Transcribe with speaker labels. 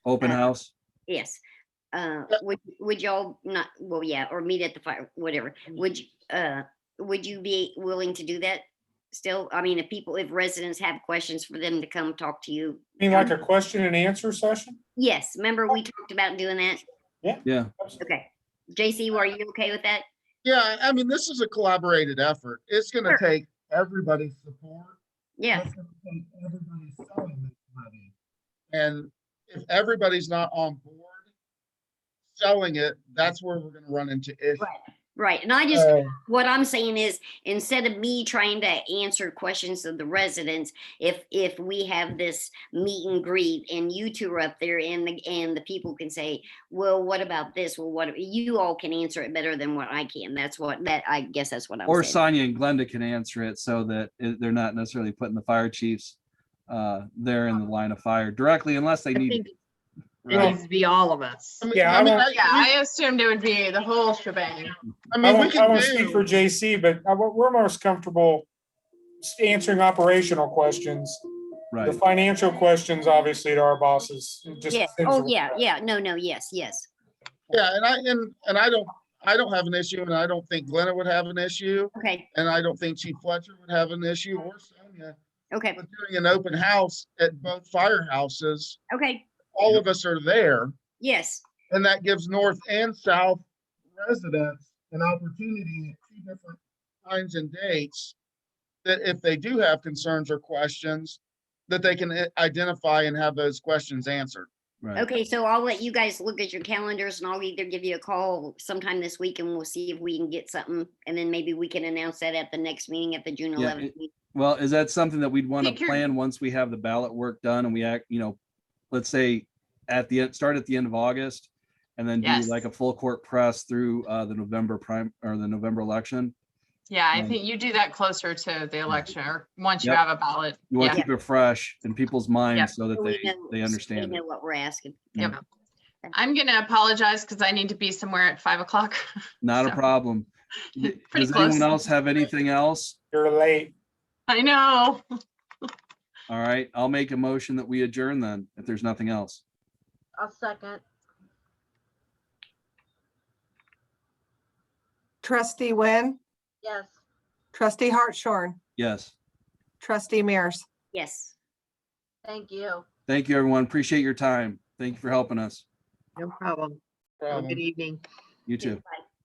Speaker 1: Open
Speaker 2: Uh,
Speaker 1: house?
Speaker 2: Yes. Uh, would, would y'all not, well, yeah, or meet at the fire, whatever. Would, you uh, would you be willing to do that still? I mean, if people, if residents have questions for them to come talk to you. Um,
Speaker 3: You mean like a question and answer session?
Speaker 2: Yes, remember we talked about doing that?
Speaker 1: Yeah,
Speaker 2: Okay. JC, were you okay with that?
Speaker 4: Yeah, I mean, this is a collaborated effort. It's gonna
Speaker 2: Sure.
Speaker 4: take everybody's support.
Speaker 3: Uh,
Speaker 2: Yeah,
Speaker 4: It's gonna take everybody selling this money. And if everybody's not on board selling it, that's where we're gonna run into issues.
Speaker 2: right. And I
Speaker 3: Uh,
Speaker 2: just,
Speaker 4: So,
Speaker 2: what I'm saying is, instead of me trying to answer questions of the residents, if, if we have this meet and greet and you two are up there and the, and the people can say, well, what about this? Well, what, you all can answer it better than what I can. That's what, that, I guess that's what
Speaker 1: or
Speaker 2: I'm saying.
Speaker 1: Sonia and Glenda can answer it so that it- they're not necessarily putting the fire chiefs uh, there in the line of fire directly unless they
Speaker 5: Uh-huh. I
Speaker 1: need.
Speaker 5: think it
Speaker 1: Right.
Speaker 5: needs to be all of us.
Speaker 4: I mean-
Speaker 3: Yeah, I
Speaker 4: I mean,
Speaker 3: won't-
Speaker 5: Oh, Yeah,
Speaker 4: I-
Speaker 5: I assumed it would be the whole shebang.
Speaker 4: I
Speaker 3: I
Speaker 4: mean, we
Speaker 3: won't, I
Speaker 4: can
Speaker 3: won't speak for
Speaker 4: do,
Speaker 3: JC, but I- we're most comfortable s- answering operational questions. The
Speaker 1: Right.
Speaker 3: financial questions, obviously, to our bosses. it just
Speaker 2: Yeah,
Speaker 3: depends
Speaker 2: oh,
Speaker 3: on-
Speaker 2: yeah, yeah, no, no, yes, yes.
Speaker 4: yeah, and I, and, and I don't, I don't have an issue and I don't think Glenna would have an issue.
Speaker 2: Okay,
Speaker 4: And I don't think Chief Fletcher would have an issue or Sonia.
Speaker 2: okay,
Speaker 4: But doing an open house at both firehouses,
Speaker 2: okay,
Speaker 4: all of us are there.
Speaker 2: yes,
Speaker 4: And that gives north and south residents an opportunity at two different times and dates. That if they do have concerns or questions, that they can i- identify and have those questions answered.
Speaker 1: Right.
Speaker 2: okay, so I'll let you guys look at your calendars and I'll either give you a call sometime this week and we'll see if we can get something. And then maybe we can announce that at the next meeting at the June
Speaker 1: Yeah,
Speaker 2: eleventh
Speaker 1: it-
Speaker 2: meeting.
Speaker 1: Well, is that something that we'd want to
Speaker 5: Take care.
Speaker 1: plan once we have the ballot work done and we act, you know, let's say at the, end, start at the end of August and then do
Speaker 5: Yes.
Speaker 1: like a full court press through uh, the November prime or the November election?
Speaker 5: Yeah, I
Speaker 1: Mm.
Speaker 5: think you do that closer to the election or once you
Speaker 1: Yep.
Speaker 5: have a ballot.
Speaker 1: You want to
Speaker 5: Yeah.
Speaker 1: keep it fresh in people's
Speaker 5: Yeah.
Speaker 1: minds so that
Speaker 2: So we
Speaker 1: they,
Speaker 2: know- so
Speaker 1: they
Speaker 2: we
Speaker 1: understand it.
Speaker 2: Know what we're asking.
Speaker 5: Yep. I'm going to apologize because I need to be somewhere at five o'clock.
Speaker 1: Not a
Speaker 5: so-
Speaker 1: problem. D-
Speaker 5: Pretty
Speaker 1: Does anyone
Speaker 5: close.
Speaker 1: else have anything else?
Speaker 3: You're late.
Speaker 5: I know.
Speaker 1: All right, I'll make a motion that we adjourn then, if there's nothing else.
Speaker 6: I'll second.
Speaker 7: Trustee Wynn,
Speaker 6: Yes.
Speaker 7: trustee Hartshorn,
Speaker 1: Yes.
Speaker 7: trustee Mears.
Speaker 2: Yes.
Speaker 6: Thank you.
Speaker 1: Thank you, everyone. Appreciate your time. Thank you for helping us.
Speaker 5: No problem.
Speaker 4: Problem.
Speaker 5: evening.
Speaker 1: You too.
Speaker 2: Bye.